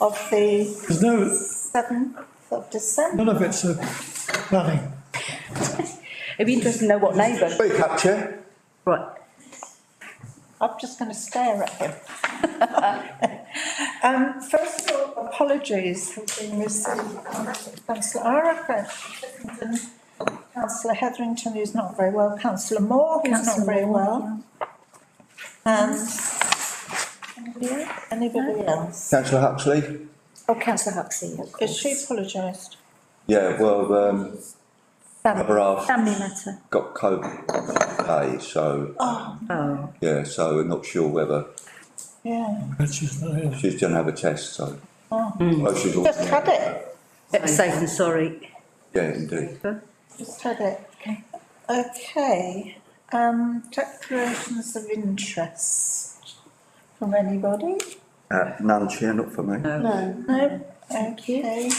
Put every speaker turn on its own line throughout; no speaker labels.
of the
There's no,
seventh of December.
none of it's uh, a planning.
It'd be interesting to know what neighbour.
Speak up, Chair.
Right.
I'm just going to stare at him. Um, first of all, apologies have been received from councillor Ara, councillor Hetherington who's not very well, councillor Moore who's not
Councillor
very
Moore,
well. And anybody else? anybody else?
Councillor Huxley?
Oh, councillor Huxley, of
Has she
course.
apologised?
Yeah, well, um,
Family,
cover off,
family matter.
got COVID today, so,
Oh,
yeah, so we're not sure whether,
Yeah.
which is not here.
she's gonna have a test, so.
Oh.
Well, she's all-
Just had it,
better safe than sorry.
Yeah, indeed.
just had it. Okay, um, declarations of interest from anybody?
Uh, none, Chair, not for me.
No.
No, okay.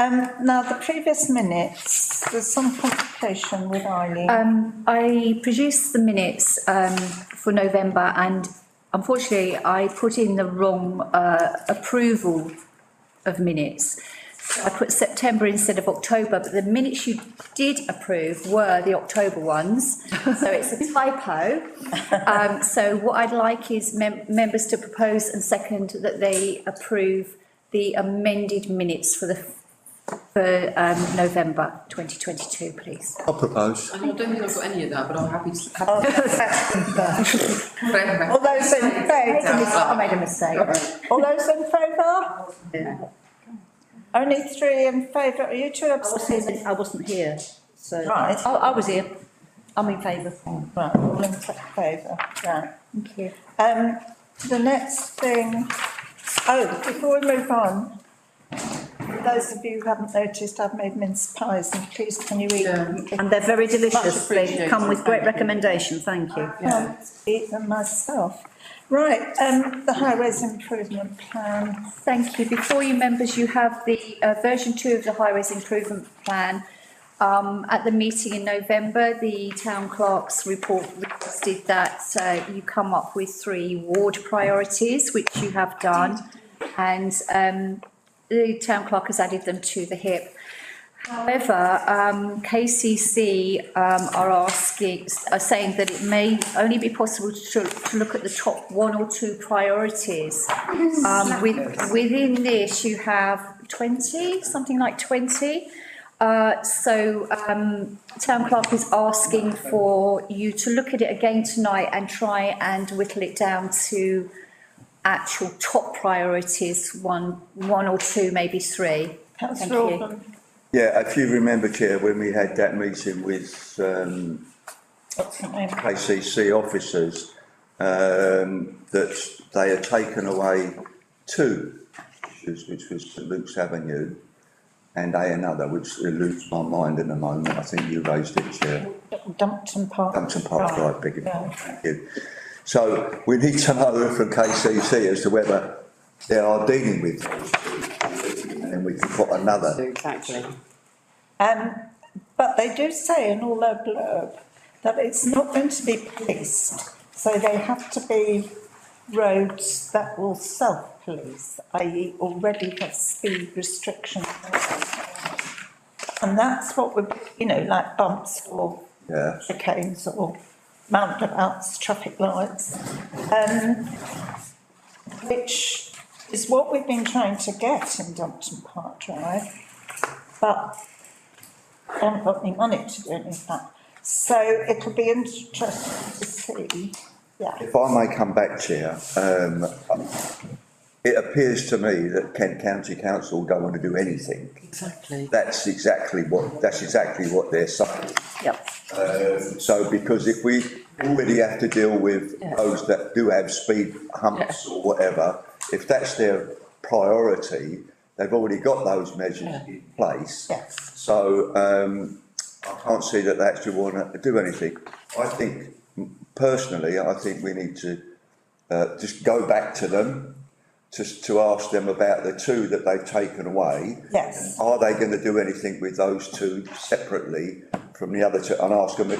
Um, now, the previous minutes, there's some complication with Eileen.
Um, I produced the minutes um, for November and unfortunately I put in the wrong uh, approval of minutes. So I put September instead of October, but the minutes you did approve were the October ones. So it's a typo. Um, so what I'd like is mem- members to propose and second that they approve the amended minutes for the for um, November 2022, please.
I'll propose.
I don't think I've got any of that, but I'm happy to
Oh,
have.
that's- All those in favour?
I made a mistake.
All those in favour? Only three in favour, are you two
I
abstaining?
wasn't, I wasn't here, so.
Right.
I, I was here. I'm in favour.
Right, all in favour, right.
Thank you.
Um, the next thing, oh, before we move on, for those of you who haven't noticed, I've made mince pies and please can you eat them?
And they're very delicious. They
appreciated,
come with
thank
great
you.
recommendation, thank you.
can't eat them myself. Right, um, the highways improvement plan,
Thank you. Before you, members, you have the uh, version two of the highways improvement plan. Um, At the meeting in November, the town clerk's report requested that uh, you come up with three ward priorities, which you have done. And um, the town clerk has added them to the HIP. However, um, KCC, um, are asking, are saying that it may only be possible to, to look at the top one or two priorities. Um, with, within this, you have twenty, something like twenty. Uh, so, um, town clerk is asking for you to look at it again tonight and try and whittle it down to actual top priorities, one, one or two, maybe three. Thank
councillor
you.
Orban,
Yeah, if you remember, Chair, when we had that meeting with, um,
what's her name?
KCC officers, um, that they had taken away two, issues, which was St Luke's Avenue and A another, which eludes my mind at the moment, I think you raised it, Chair.
Dumpton Park.
Dumpton Park
Drive.
Drive, beg your
Yeah.
pardon, thank you. So we need to know from KCC as to whether they are dealing with those two, and then we can put another.
Exactly.
Um, but they do say in all their blurb that it's not going to be policed, so they have to be roads that will self-police, i.e. already have speed restrictions. And that's what we, you know, like bumps or
Yeah,
chicanes or roundabouts, traffic lights. Um, which is what we've been trying to get in Dumpton Park Drive, but I haven't got any money to do any of that. So it'll be interesting to see, yeah.
if I may come back, Chair, um, it appears to me that Kent County Council don't want to do anything.
Exactly.
That's exactly what, that's exactly what they're saying.
Yep.
Um, so because if we already have to deal with
Yeah.
those that do have speed humps or whatever, if that's their priority, they've already got those measures
Yeah.
in place.
Yes.
So, um, I can't see that they actually want to do anything. I think, personally, I think we need to, uh, just go back to them, just to ask them about the two that they've taken away.
Yes.
Are they going to do anything with those two separately from the other two? And ask them